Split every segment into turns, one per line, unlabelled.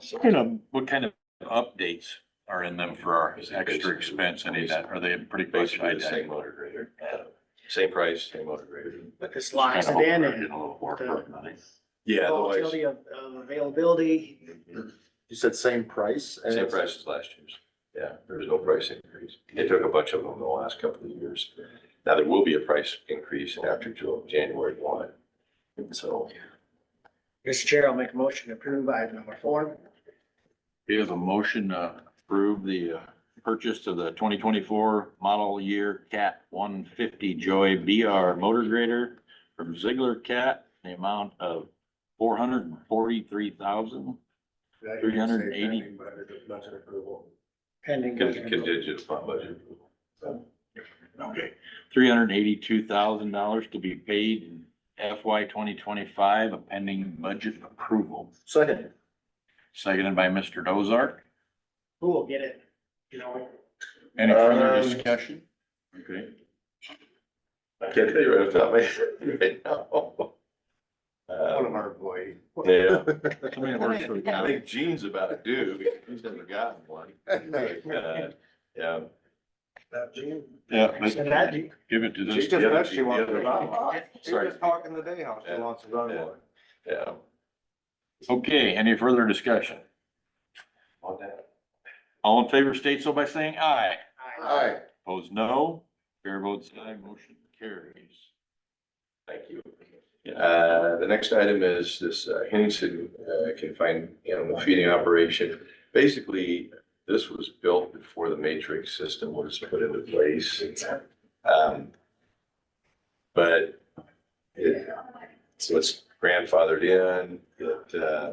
so.
You know,
What kind of updates are in them for our extra expense, any of that, are they pretty much
Basically the same
identical?
motor grader, uh, same price, same motor grader.
But this
Kind
locks
of
it
hope
in
we're
and
getting a little more for it, money.
Yeah,
Oh,
otherwise,
volatility of of availability.
You said same price? and
same
it's-
price as last year's. Yeah, there was no price increase. They took a bunch of them in the last couple of years. Now there will be a price increase after Ju- January one. And so,
Mr. Chair, I'll make a motion to approve item number four.
We have a motion to approve the uh, purchase of the twenty twenty-four model year Cat one fifty Joy BR motor grader from Ziegler Cat, the amount of four hundred and forty-three thousand. Three hundred and eighty.
Pending.
con- contingent upon budget. So,
Okay. Three hundred and eighty-two thousand dollars to be paid in FY twenty twenty-five, a pending budget approval.
Second,
Seconded by Mr. Dozart.
Who will get it? You know,
Any further
Um,
discussion? Okay.
I can't tell you right off the top of my head right now.
one of
Uh,
our employees.
Yeah,
Somebody that works for the
I
county.
think Gene's about to do, because he's never gotten one. Uh, Yeah.
Yeah, let's
so that,
give it to
She
this.
just said she wants to
other-
run. She was talking today how she wants to run
Yeah.
one.
Yeah.
Okay, any further discussion?
On that.
All in favor state so by saying aye.
I-
Alright,
Opposed, no. Chair votes aye, motion carries.
Thank you. Uh, the next item is this uh, Henningsen uh, confined animal feeding operation. Basically, this was built before the matrix system was put into place. Um, But it, so it's grandfathered in, it, uh,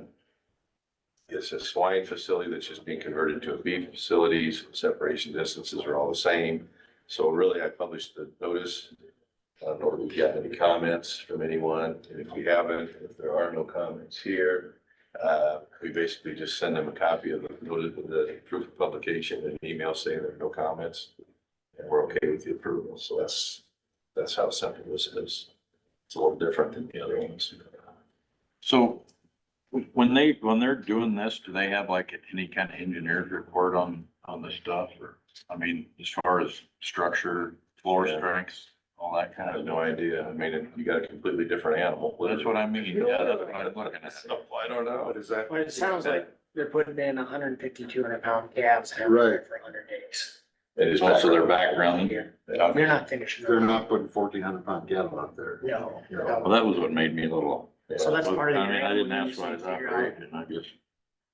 it's a swine facility that's just being converted to a beef facility. so Separation distances are all the same. So really, I published the notice I don't know Uh, if we've got any comments from anyone, and if we haven't, if there are no comments here, uh, we basically just send them a copy of the, notice of the proof of publication and an email saying there are no comments. And we're okay with the approval, so that's, that's how simple this is. It's a little different than the other ones.
So when they, when they're doing this, do they have like any kind of engineer's report on, on the stuff or? I mean, as far as structure, floor
Yeah.
strengths, all that
I
kind
have
of.
no idea, I mean, it- you got a completely different animal.
That's what I mean. Yeah, that's what I'm looking at.
So, I don't know.
what is that?
But it sounds like they're putting in 150, 200 pound calves. and having them For 100 days.
It is
Also their
background.
background.
Yeah.
They're not finishing.
They're
them.
not putting fourteen hundred pound cattle out there.
No,
Well,
no.
that was what made me a little.
So that's part of the
I mean, I didn't
animal
ask why
use
it's
and figure
operating, I guess.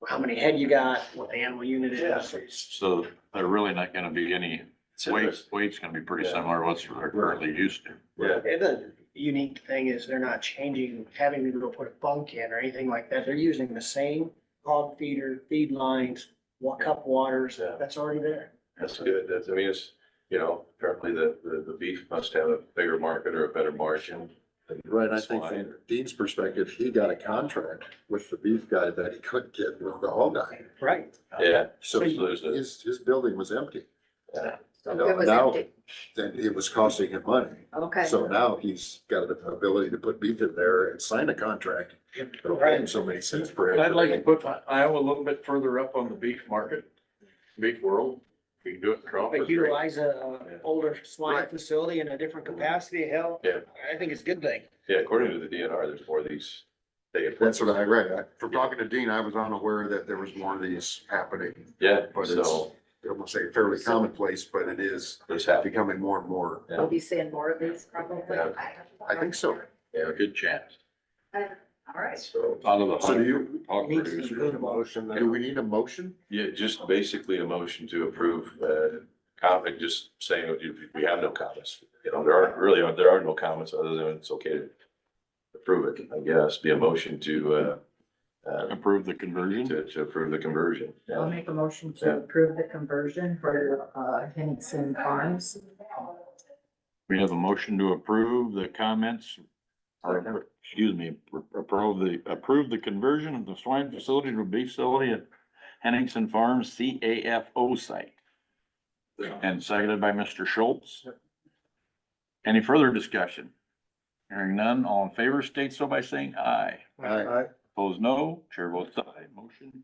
How many head you got, what the animal unit is.
So they're really not gonna be any,
It's
weight,
interesting.
weight's gonna be pretty
Yeah.
similar to what's they're currently used to.
Yeah.
And the unique thing is they're not changing, having to go put a bunk in or anything like that. They're using the same hog feeder, feed lines, wa- cup waters,
Yeah.
that's already there.
That's good. That's, I mean, it's, you know, apparently the, the, the beef must have a bigger market or a better margin. than
Right, I think
swine.
from Dean's perspective, he got a contract with the beef guy that he couldn't get with the hog guy.
Right.
Yeah,
So
So there's a-
his, his building was empty.
Yeah.
You
It
know,
was
Now,
empty.
then it was costing him money.
Okay.
So now he's got the ability to put beef in there and sign a contract. It'll pay him so many cents per.
I'd like to put Iowa a little bit further up on the beef market, beef world. We can do it.
But utilize a, a
Yeah.
older swine
Right.
facility in a different capacity, hell.
Yeah.
I think it's a good thing.
yeah, according to the DNR, there's more of these. They,
That's what I read. I- From talking to Dean, I was unaware that there was more of these happening.
yeah,
But it's,
so
I won't say fairly commonplace, but it is
there's half,
becoming more and more.
Yeah.
We'll be seeing more of these probably.
Yeah.
I think so.
yeah,
Good chance.
All right.
so.
Out of the
So do
hundred
you,
hog
Needs to
producers.
improve on
do we need a motion?
Yeah, just basically a motion to approve, uh, comment, just saying, that you- we have no comments. You know, there aren't really, there are no comments other than it's okay to approve it, I guess, be a motion to, uh, uh,
Approve the conversion.
to, to approve the conversion.
I'll
Yeah.
make a motion
Yeah.
to approve the conversion for, uh, Henningsen Farms.
We have a motion to approve the comments. Or, excuse me, approve the, approve the conversion of the swine facility to a beef facility at Henningsen Farms CAFO site. And seconded by Mr. Schultz. Any further discussion? Hearing none, all in favor state so by saying aye.
Aye.
Opposed, no. Chair votes aye. Motion